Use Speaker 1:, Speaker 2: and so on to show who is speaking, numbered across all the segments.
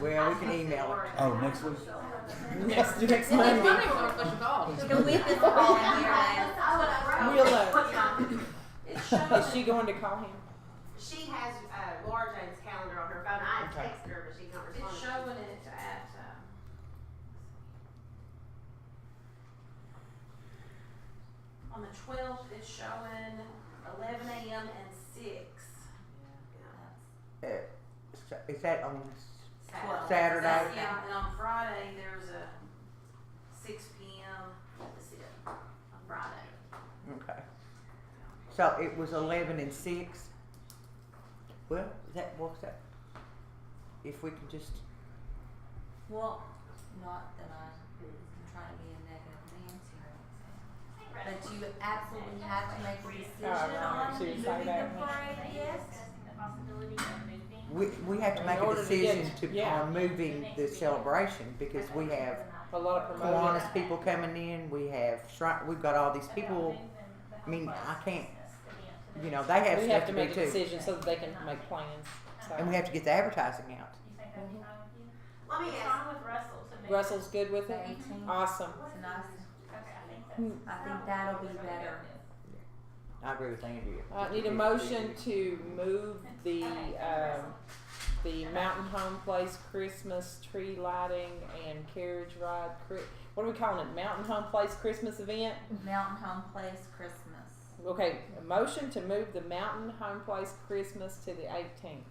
Speaker 1: Well, we can email it.
Speaker 2: Oh, next week?
Speaker 3: Next, next
Speaker 4: It's funny
Speaker 3: Monday.
Speaker 4: we're gonna push a call.
Speaker 5: The whip is all in here. man.
Speaker 3: Real low.
Speaker 6: It's
Speaker 3: Is
Speaker 6: showing,
Speaker 3: she going to call him?
Speaker 6: she has, uh, Laura Jane's calendar on her phone, I
Speaker 3: Okay.
Speaker 6: texted her, but she's not
Speaker 5: It's
Speaker 6: responding.
Speaker 5: showing it at, um, on the twelfth, it's showing eleven AM and six.
Speaker 1: Is that on?
Speaker 5: Well,
Speaker 1: Saturday.
Speaker 5: that's- Yeah, and on Friday, there's a six P M, that's it, on Friday.
Speaker 1: Okay. So it was eleven and six. Well, that works out. If we can just,
Speaker 7: Well, not that I, I'm trying to be a negative Nancy or anything, but you absolutely have to make a
Speaker 8: uh,
Speaker 3: Oh,
Speaker 8: um,
Speaker 7: decision
Speaker 3: no,
Speaker 7: on
Speaker 3: she
Speaker 7: moving
Speaker 3: was
Speaker 7: the
Speaker 3: like that. one.
Speaker 7: parade, yes?
Speaker 1: we, we have to
Speaker 3: In
Speaker 1: make a
Speaker 3: order to get-
Speaker 1: decision to,
Speaker 3: yeah.
Speaker 1: on moving the celebration because we have
Speaker 3: A lot of promotion.
Speaker 1: Kiwanis people coming in, we have Shri- we've got all these people, I mean, I can't, you know, they have
Speaker 3: We
Speaker 1: stuff
Speaker 3: have
Speaker 1: to
Speaker 3: to
Speaker 1: do
Speaker 3: make a
Speaker 1: too.
Speaker 3: decision so that they can make plans. So.
Speaker 1: And we have to get the advertising out.
Speaker 6: Let me
Speaker 8: It's
Speaker 6: ask,
Speaker 8: on with Russell to make.
Speaker 3: Russell's good with
Speaker 7: The
Speaker 3: it?
Speaker 7: eighteenth,
Speaker 3: Awesome.
Speaker 7: it's a nice,
Speaker 8: Okay, I think
Speaker 3: Hmm.
Speaker 8: that's.
Speaker 7: I think that'll be better.
Speaker 1: I agree with Andrea.
Speaker 3: Uh, I need a motion to move the, um, the Mountain Home Place Christmas tree lighting and carriage ride, cri- what are we calling it, Mountain Home Place Christmas event?
Speaker 7: Mountain Home Place Christmas.
Speaker 3: Okay, a motion to move the Mountain Home Place Christmas to the eighteenth.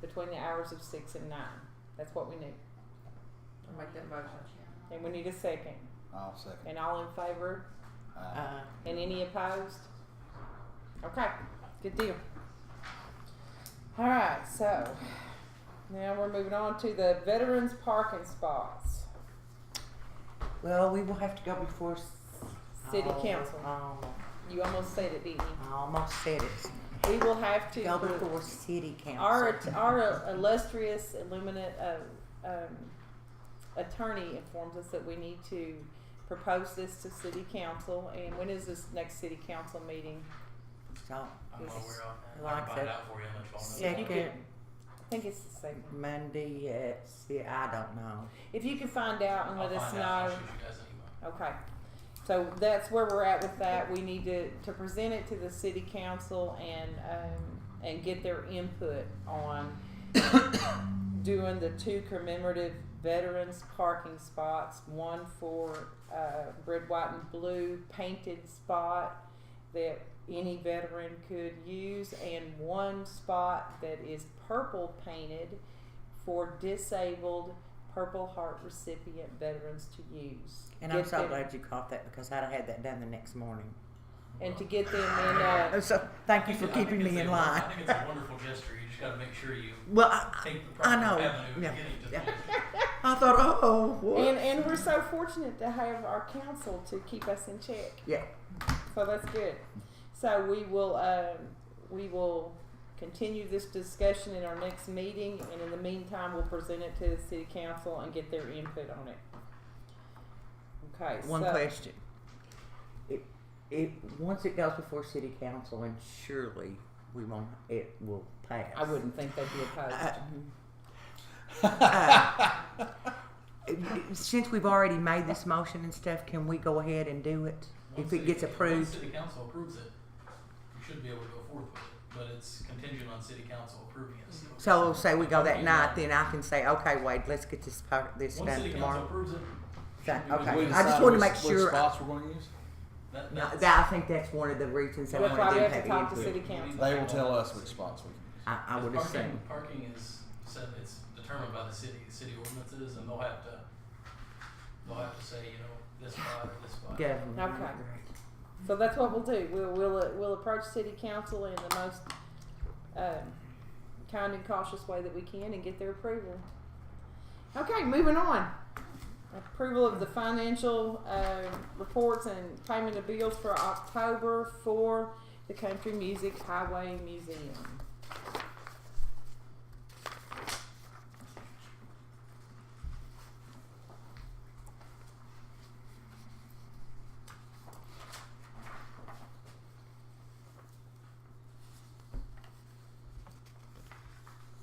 Speaker 3: Between the hours of six and nine, that's what we need,
Speaker 4: I'll make that motion.
Speaker 3: and we need a second,
Speaker 2: I'll second.
Speaker 3: and all in favor,
Speaker 2: Uh,
Speaker 1: Uh,
Speaker 3: and any opposed? Okay, good deal. Alright, so, now we're moving on to the veterans parking spots,
Speaker 1: well, we will have to go before. s-
Speaker 3: city
Speaker 1: oh,
Speaker 3: council,
Speaker 1: oh,
Speaker 3: you almost said it, didn't
Speaker 1: I almost said it.
Speaker 3: you? We will have to.
Speaker 1: Go before city council.
Speaker 3: our att- our illustrious illuminate uh, um, attorney informs us that we need to propose this to city council and when is this next city council meeting
Speaker 1: So,
Speaker 9: I'm
Speaker 3: This is
Speaker 9: aware of.
Speaker 1: like
Speaker 9: I'll find
Speaker 1: the
Speaker 9: out for you how much longer.
Speaker 3: Yeah, you
Speaker 1: second
Speaker 3: i think it's the second
Speaker 1: Monday at, see, I don't know.
Speaker 3: if you can find out and
Speaker 9: I'll
Speaker 3: let us
Speaker 9: find
Speaker 3: know
Speaker 9: out. I'll shoot you guys an email.
Speaker 3: Okay, so that's where we're at with that. We need to, to present it to the city council and, um, and get their input on doing the two commemorative veterans parking spots, one for, uh, red, white, and blue painted spot that any veteran could use, and one spot that is purple painted for disabled Purple Heart recipient veterans to use.
Speaker 1: And I'm
Speaker 3: Get
Speaker 1: so
Speaker 3: them-
Speaker 1: glad you caught that because I'd have had that done the next morning.
Speaker 3: And to get them in, uh,
Speaker 1: So, thank you
Speaker 9: I
Speaker 1: for
Speaker 9: think
Speaker 1: keeping
Speaker 9: it's
Speaker 1: me
Speaker 9: a
Speaker 1: in
Speaker 9: won-
Speaker 1: line.
Speaker 9: I think it's a wonderful gesture. You just got to make sure you
Speaker 1: Well, I,
Speaker 9: take the proper
Speaker 1: know.
Speaker 9: avenue
Speaker 1: Yeah.
Speaker 9: of getting to
Speaker 1: Yeah.
Speaker 9: things.
Speaker 1: I thought, oh,
Speaker 3: and, and we're so fortunate to have our council to keep us in check.
Speaker 1: Yeah.
Speaker 3: So that's good. So we will, um, we will continue this discussion in our next meeting, and in the meantime, we'll present it to the city council and get their input on it. Okay, so.
Speaker 1: One question. It, it, once it goes before city council, and surely we won't, it will pass.
Speaker 3: I wouldn't think they'd be opposed.
Speaker 1: Uh, uh, Since we've already made this motion and stuff, can we go ahead and do it? If
Speaker 9: Once
Speaker 1: it gets
Speaker 9: city- Once
Speaker 1: approved,
Speaker 9: city council approves it, you should be able to go forth with it, but it's contingent on city council approving it. still.
Speaker 1: so say we go that
Speaker 9: Okay.
Speaker 1: night, then I can say, okay, Wade, let's get this part, this
Speaker 9: Once
Speaker 1: done
Speaker 9: city council
Speaker 1: tomorrow.
Speaker 9: approves it.
Speaker 1: That-
Speaker 9: should be
Speaker 1: okay.
Speaker 9: good.
Speaker 2: we
Speaker 1: I
Speaker 2: decide
Speaker 1: just wanted to
Speaker 2: which-
Speaker 1: make
Speaker 2: which
Speaker 1: sure-
Speaker 2: Spots we're gonna use?
Speaker 9: That,
Speaker 1: No,
Speaker 9: that's-
Speaker 1: that, I think that's one of the reasons that
Speaker 3: We'll
Speaker 1: we
Speaker 3: probably
Speaker 1: didn't have
Speaker 3: have to talk to
Speaker 1: input.
Speaker 3: city council.
Speaker 2: They will tell us which spots we can
Speaker 1: I, I would
Speaker 9: parking,
Speaker 1: assume.
Speaker 9: Parking is set, it's determined by the city, the city ordinances, and they'll have to, they'll have to say, you know, this spot, or this spot.
Speaker 1: Go.
Speaker 3: Okay. So that's what we'll do. We'll we'll we'll approach city council in the most um, kind and cautious way that we can and get their approval. Okay, moving on. Approval of the financial uh, reports and payment of bills for October for the Country Music Highway Museum.